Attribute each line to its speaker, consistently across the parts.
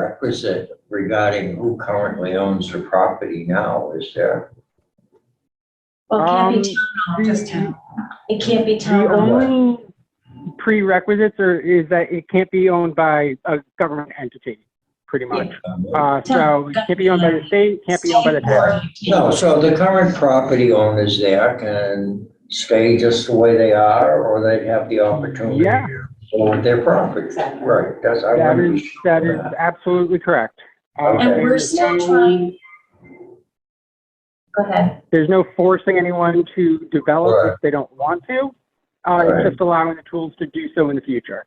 Speaker 1: prerequisite regarding who currently owns the property now, is there?
Speaker 2: Well, it can't be
Speaker 3: Um,
Speaker 2: town, just town. It can't be
Speaker 3: The
Speaker 2: town.
Speaker 3: only prerequisites are, is that it can't be owned by a government entity, pretty much. Uh, so it can't be owned by the state, can't be owned by the town.
Speaker 1: No, so the current property owners there can stay just the way they are, or they'd have the opportunity
Speaker 3: Yeah.
Speaker 1: to own their property.
Speaker 2: Exactly.
Speaker 1: Right, that's, I
Speaker 3: That
Speaker 1: want
Speaker 3: is, that is absolutely correct. Uh,
Speaker 1: Okay.
Speaker 2: And we're
Speaker 3: there's
Speaker 2: still
Speaker 3: no-
Speaker 2: trying. Go ahead.
Speaker 3: There's no forcing anyone to develop
Speaker 1: Right.
Speaker 3: if they don't want to. Uh,
Speaker 1: Right.
Speaker 3: it's just allowing the tools to do so in the future.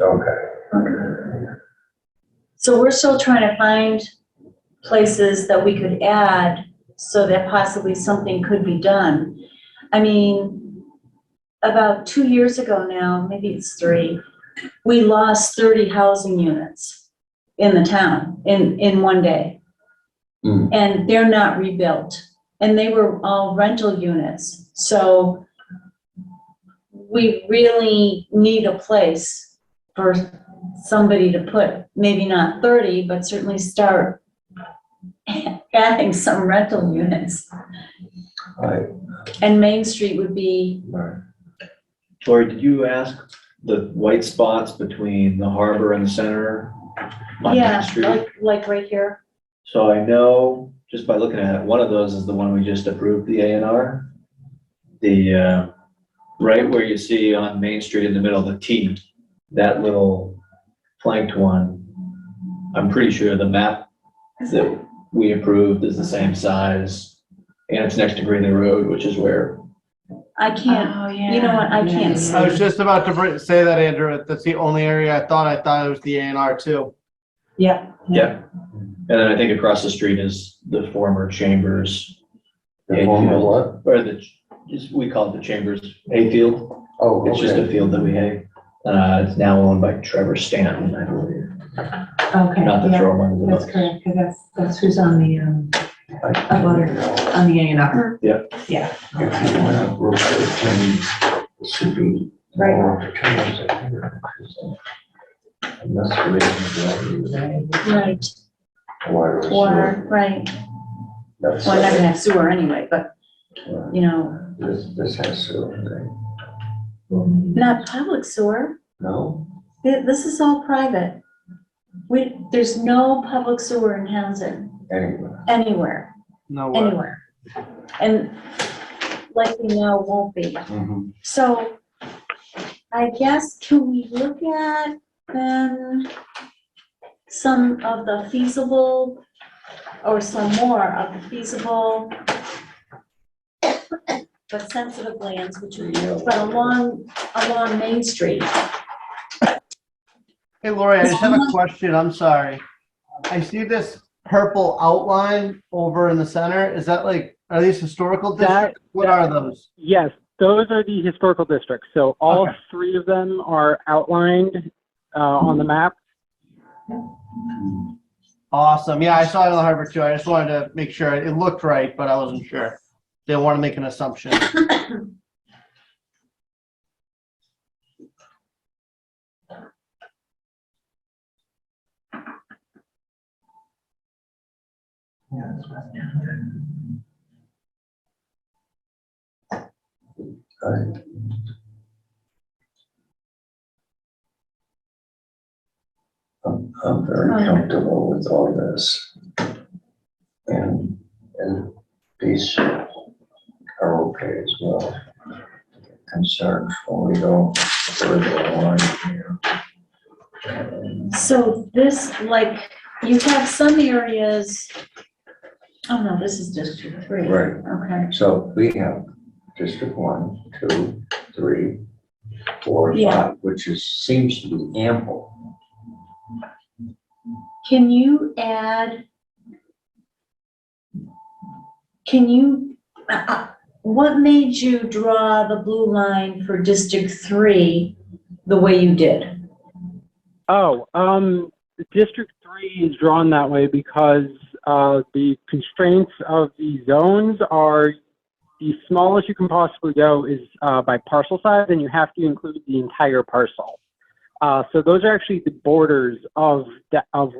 Speaker 1: okay.
Speaker 2: So we're still trying to find places that we could add so that possibly something could be done. I mean, about two years ago now, maybe it's three, we lost thirty housing units in the town in, in one day.
Speaker 1: Hmm.
Speaker 2: and they're not rebuilt. And they were all rental units, so we really need a place for somebody to put, maybe not thirty, but certainly start adding some rental units.
Speaker 1: Right,
Speaker 2: And Main Street would be,
Speaker 1: right.
Speaker 4: Lori, did you ask the white spots between the harbor and the center on Main
Speaker 2: yeah,
Speaker 4: Street?
Speaker 2: like, like right here.
Speaker 4: So I know, just by looking at it, one of those is the one we just approved, the A and R. The, uh, right where you see on Main Street in the middle, the T, that little flanked one. I'm pretty sure the map that we approved is the same size and it's next to Greeley Road, which is where
Speaker 2: I can't,
Speaker 5: Oh,
Speaker 2: you know what, I can't see.
Speaker 6: I was just about to br- say that, Andrew. That's the only area I thought. I thought it was the A and R too.
Speaker 5: Yeah.
Speaker 4: Yeah. And then I think across the street is the former Chambers,
Speaker 1: The former what?
Speaker 4: or the, just, we call it the Chambers Hayfield.
Speaker 1: Oh,
Speaker 4: It's just a
Speaker 1: okay.
Speaker 4: field that we hay. Uh, it's now owned by Trevor Stanton, I believe.
Speaker 5: Okay,
Speaker 4: Not to
Speaker 5: yeah,
Speaker 4: throw him under the
Speaker 5: that's
Speaker 4: bus.
Speaker 5: correct, because that's, that's who's on the, um,
Speaker 1: I-
Speaker 5: butter. on the A and R.
Speaker 1: If you wanna rotate things, it should be
Speaker 5: Right.
Speaker 1: more opportunities, I think, because, uh, and that's the reason why
Speaker 4: Ah,
Speaker 2: Right,
Speaker 1: we- why we're
Speaker 2: water, right,
Speaker 1: here. That's-
Speaker 2: well, I'm not gonna have sewer anyway, but,
Speaker 1: uh,
Speaker 2: you know,
Speaker 1: This, this has sewer, right?
Speaker 2: not public sewer.
Speaker 1: No?
Speaker 2: Th- This is all private. We, there's no public sewer in Townsend,
Speaker 1: Anyway,
Speaker 2: anywhere,
Speaker 6: No way.
Speaker 2: anywhere. And likely now won't be. So I guess can we look at then some of the feasible or some more of the feasible but sensitive lands, which are, but along, along Main Street.
Speaker 6: Hey, Lori, I just have a question. I'm sorry. I see this purple outline over in the center. Is that like, are these historical
Speaker 3: That-
Speaker 6: districts? What are those?
Speaker 3: Yes, those are the historical districts. So all
Speaker 6: Okay.
Speaker 3: three of them are outlined uh, on the map.
Speaker 6: Awesome. Yeah, I saw it on the harbor too. I just wanted to make sure it looked right, but I wasn't sure. Didn't want to make an assumption.
Speaker 1: alright. I'm, I'm very comfortable with all this. And, and these are okay as well. Concerned when we go further along here.
Speaker 2: So this, like, you have some areas, oh no, this is District Three.
Speaker 1: Right.
Speaker 2: Okay,
Speaker 1: So we have District One, Two, Three, Four,
Speaker 2: Yeah.
Speaker 1: Five, which is, seems to be ample.
Speaker 2: can you add? Can you, uh, uh, what made you draw the blue line for District Three the way you did?
Speaker 3: Oh, um, District Three is drawn that way because, uh, the constraints of the zones are the smallest you can possibly go is, uh, by parcel size and you have to include the entire parcel. Uh, so those are actually the borders of the, of